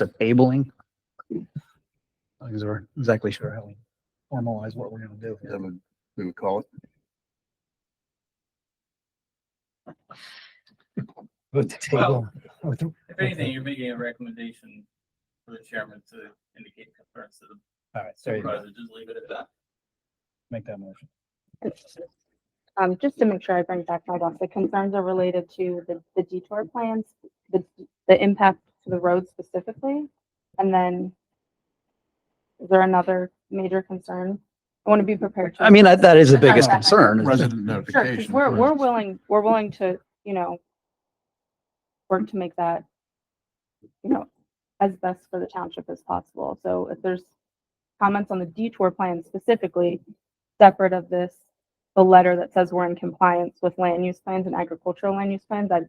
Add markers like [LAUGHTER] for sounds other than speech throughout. to tabling. Because we're exactly sure how we formalize what we're gonna do. Is that what we would call it? With the table, with the- If anything, you're making a recommendation for the chairman to indicate concerns to the all right, there you go. supervisor, just leave it at that. Make that motion. Um, just to make sure I bring back my box, the concerns are related to the, the detour plans, the, the impact to the road specifically. And then is there another major concern? I want to be prepared. to I mean, that, that is the biggest Okay. concern. is that- Resident Sure, 'cause notification. we're, we're willing, we're willing to, you know, work to make that, you know, as best for the township as possible. So if there's comments on the detour plan specifically, separate of this, the letter that says we're in compliance with land use plans and agricultural land use plans, I'd,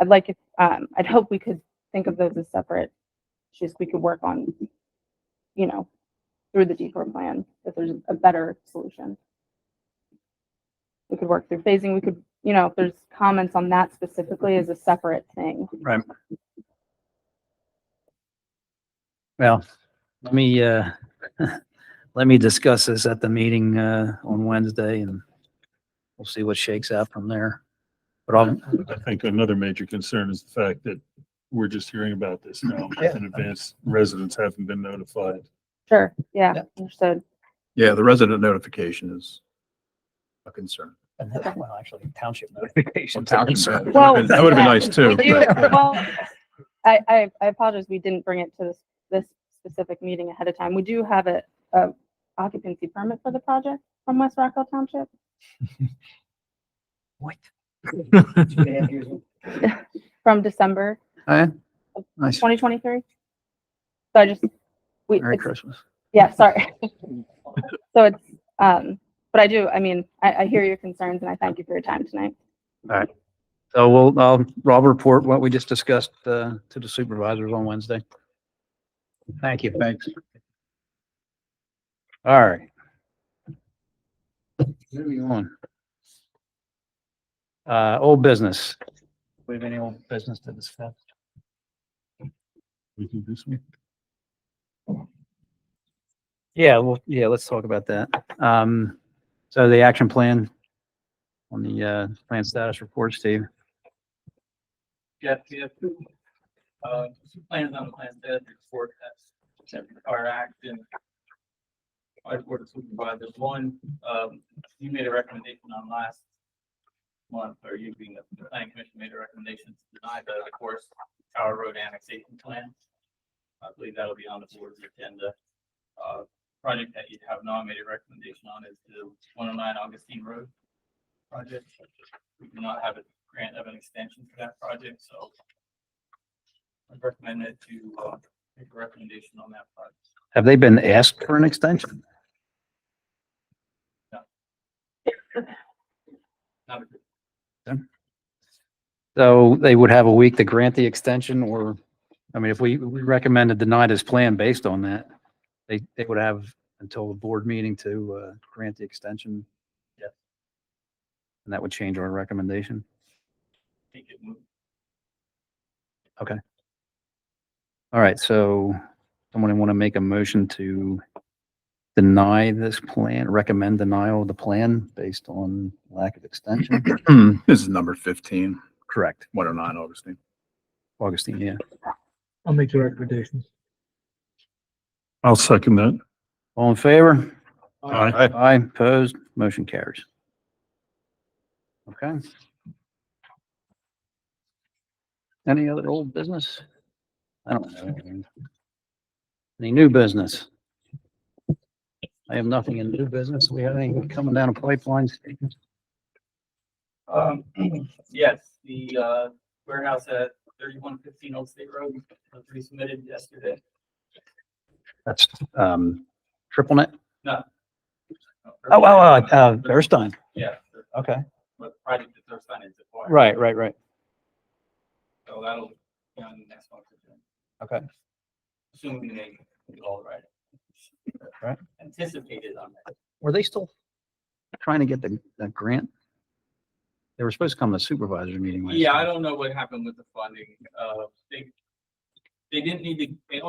I'd like, if um, I'd hope we could think of those as separate issues we could work on, you know, through the detour plan, if there's a better solution we could work through phasing, we could, you know, if there's comments on that specifically as a separate thing. Right. Well, let me, uh, [LAUGHS] let me discuss this at the meeting, uh, on Wednesday and we'll see what shakes out from there. But I'll, I think another major concern is the fact that we're just hearing about this now Yeah. in advance. Residents haven't been notified. Sure, yeah, understood. Yeah, the resident notification is a concern. well, actually township notification. That would Well, have been nice too. [LAUGHS] We do- but, uh, Well, I, I, I apologize, we didn't bring it to this, this specific meeting ahead of time. We do have a, a occupancy permit for the project from West Rockwell Township. What? [LAUGHS] From December Eh, Nice. twenty twenty-three. So I just, we, Merry it's- Christmas. Yeah, sorry. [LAUGHS] So it's, um, but I do, I mean, I, I hear your concerns and I thank you for your time tonight. So we'll, I'll, Rob will report what we just discussed, uh, to the supervisors on Wednesday. Thank you. Thanks. All right. Moving on. Uh, old business. We have any old business to discuss? We do this one. Yeah, well, yeah, let's talk about that. Um, so the action plan on the, uh, plan status report, Steve. Jeff, we have two, uh, two plans on the plan that report that are acting. Our board of supervisors, one, um, you made a recommendation on last month, or you being the planning commission made a recommendation to deny the, of course, Tower Road annexation plan. I believe that'll be on the board's agenda. Uh, project that you have not made a recommendation on is the one oh nine Augustine Road project. We do not have a grant of an extension for that project, so I recommend it to, uh, make a recommendation on that project. Have they been asked for an extension? Not a good So they would have a week to grant the extension or, I mean, if we, we recommend to deny this plan based on that, they, they would have until the board meeting to, uh, grant the extension. Yes. And that would change our recommendation. think it moved. All right, so someone want to make a motion to deny this plan, recommend denial of the plan based on lack of [CLEARS THROAT] extension? This is number fifteen, Correct. one oh nine Augustine. Augustine, yeah. I'll make the recommendation. I'll second that. All in favor? Aye. Aye, opposed, motion carries. Okay. Any other old business? I don't know. Any new business? I have nothing in new business. We have anything coming down the pipeline? Um, [CLEARS THROAT] yes, the, uh, warehouse at thirty-one fifteen Old State Road was resubmitted yesterday. That's, um, triple net? Oh, Oh, wow, wow, uh, Erstein. Yeah, the- Okay. but the project that they're signing is acquired. Right, right, right. So that'll be on the next one. Okay. Assuming they get all right. Right. Anticipated on that. Were they still trying to get the, that grant? They were supposed to come to supervisor meeting. last Yeah, time. I don't know what happened with the funding. Uh, they they didn't need to, they